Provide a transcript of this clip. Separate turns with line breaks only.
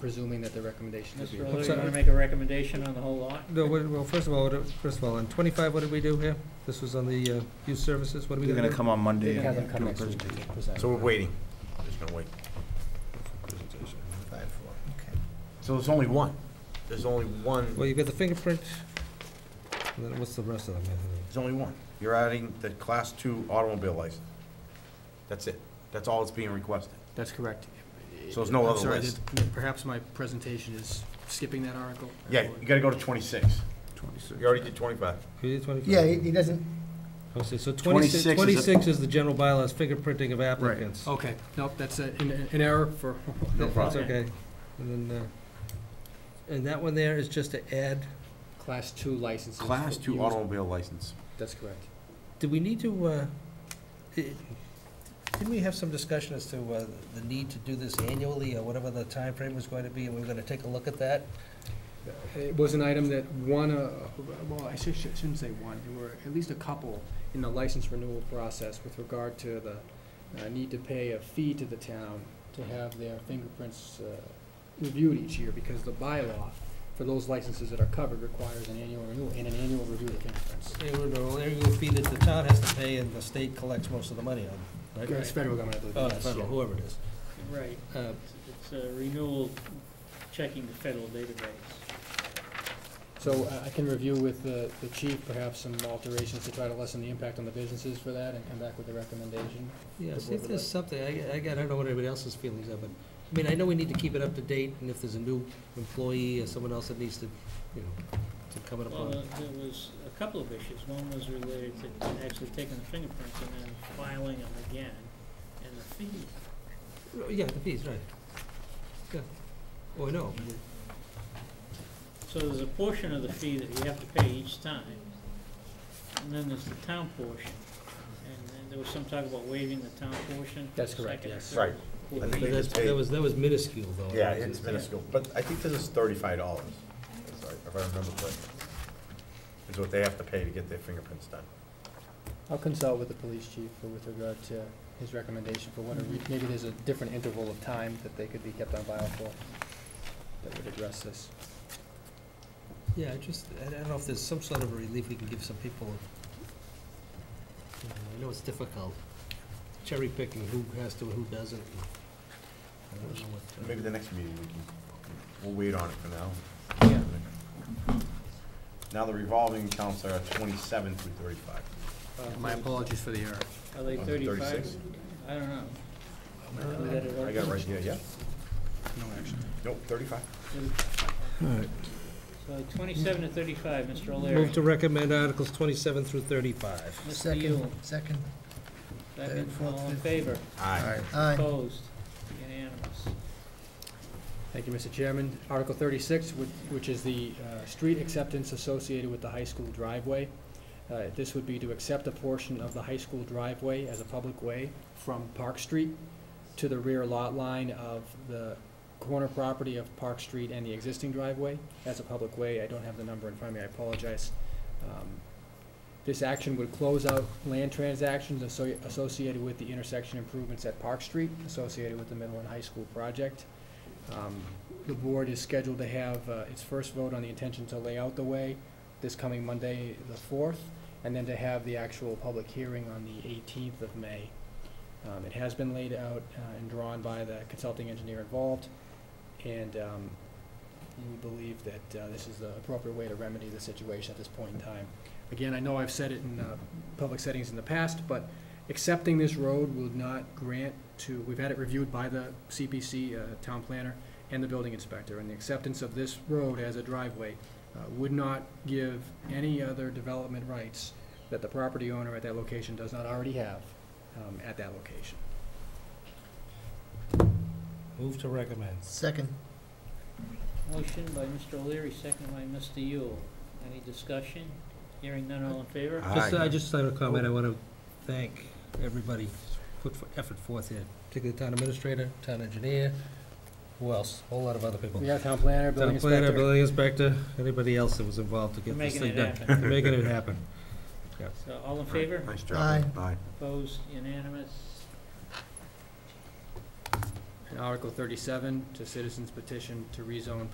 presuming that the recommendation is.
Mr. O'Leary, you
sorry.
want to make a recommendation on the whole lot?
No, what- well, first of all, what- first of all, on twenty-five, what did we do here? This was on the uh, youth services, what are we
They're
gonna do?
gonna come on Monday
Have them
and
come
do a
next week to
presentation.
present.
So we're waiting.
Just gonna wait. for presentation.
Five, four, okay. So there's only one. There's only one,
Well, you got the fingerprint, and then what's the rest of them?
there's only one. You're adding the class two automobile license. That's it. That's all that's being requested.
That's correct.
So there's no
I'm
other
sorry,
list.
that- Perhaps my presentation is skipping that article.
Yeah, you gotta go to twenty-six.
Twenty-six.
You already did twenty-five.
We did twenty-five?
Yeah, he he doesn't,
Okay, so
26 is the-
twenty-six, twenty-six is the general bylaws, fingerprinting of applicants.
Oh,
Okay, nope, that's a- an an error for,
No
problem.
That's okay. And then, uh, and that one there is just to add,
Class two licenses.
Class
for
two
use-
automobile license.
That's correct.
do we need to, uh, i- didn't we have some discussion as to uh, the need to do this annually, or whatever the time frame was going to be, and we were gonna take a look at that?
Uh, It was an item that one, uh, well, I should- shouldn't say one, there were at least a couple in the license renewal process with regard to the uh, need to pay a fee to the town to have their fingerprints uh, reviewed each year, because the bylaw for those licenses that are covered requires an annual renewal and an annual review of fingerprints.
Annual annual fee that the town has to pay, and the state collects most of the money on, right?
It's federal government, I believe.
Oh,
yes,
federal,
yeah.
whoever it is.
Right,
Uh,
it's a renewal, checking the federal database.
So uh, I- I can review with the the chief perhaps some alterations to try to lessen the impact on the businesses for that and come back with a recommendation.
Yeah,
The
see
board
if
would
there's
like.
something, I, I I don't know what anybody else's feelings are, but, I mean, I know we need to keep it up to date, and if there's a new employee or someone else that needs to, you know, to come in
Well,
upon.
uh, there was a couple of issues. One was related to actually taking the fingerprints and then filing them again, and the fee.
Oh, Yeah, the fees, right. Yeah. Oh, I know.
So there's a portion of the fee that you have to pay each time, and then there's the town portion. And then there was some talk about waiving the town portion. for
That's
the
correct,
second and
yes.
third
Right.
portion.
I think
But
they
that's,
just pay-
that was, that was minuscule, though.
Yeah, it's minuscule, but I think this is thirty-five dollars, if I remember correctly. Is what they have to pay to get their fingerprints done.
I'll consult with the police chief for- with regard to his recommendation for what, a re-
Mm-hmm.
maybe there's a different interval of time that they could be kept on file for that would address this.
Yeah, I just, I I don't know if there's some sort of relief we can give some people. You know, I know it's difficult, cherry picking who has to and who doesn't. I don't know what, uh,
Maybe the next meeting we can, we'll wait on it for now. Now the revolving accounts are twenty-seven through thirty-five.
Uh,
my apologies for the error.
Are they
Oh,
thirty-five?
36?
I don't know. We got it
Uh, I got it right here, yeah?
No action.
Nope, thirty-five.
So twenty-seven to thirty-five, Mr. O'Leary.
Move to recommend Articles twenty-seven through thirty-five.
Mr.
second,
Yule,
second,
second,
third, fourth,
all in
fifth.
favor?
Aye.
aye.
Opposed? Unanimous.
Thank you, Mr. Chairman. Article thirty-six, which, which is the, uh, street acceptance associated with the high school driveway. Uh, this would be to accept a portion of the high school driveway as a public way from Park Street to the rear lot line of the corner property of Park Street and the existing driveway as a public way. I don't have the number in front of me, I apologize. Um, This action would close out land transactions asso- associated with the intersection improvements at Park Street, associated with the middle and high school project. Um, The board is scheduled to have uh, its first vote on the intention to lay out the way this coming Monday, the 4th, and then to have the actual public hearing on the 18th of May. Um, It has been laid out uh, and drawn by the consulting engineer involved, and um, we believe that uh, this is the appropriate way to remedy the situation at this point in time. Again, I know I've said it in uh, public settings in the past, but accepting this road will not grant to, we've had it reviewed by the CPC, uh, town planner, and the building inspector, and the acceptance of this road as a driveway uh, would not give any other development rights that the property owner at that location does not already have um, at that location.
Move to recommend.
Second,
Motion by Mr. O'Leary, second by Mr. Yule. Any discussion? Hearing none, all in favor?
Just, uh, I
Aye.
just have a comment, I want to thank everybody put for- effort forth here, particularly the town administrator, town engineer, who else? Whole lot of other people.
We have town planner, building
Town planner,
inspector.
building inspector, anybody else that was involved to get this
Making
thing
it
done.
happen.
They're Making it happen.
So all in favor?
Nice
Aye.
job. Aye.
Opposed? Unanimous?
And Article thirty-seven, to citizens petition to rezone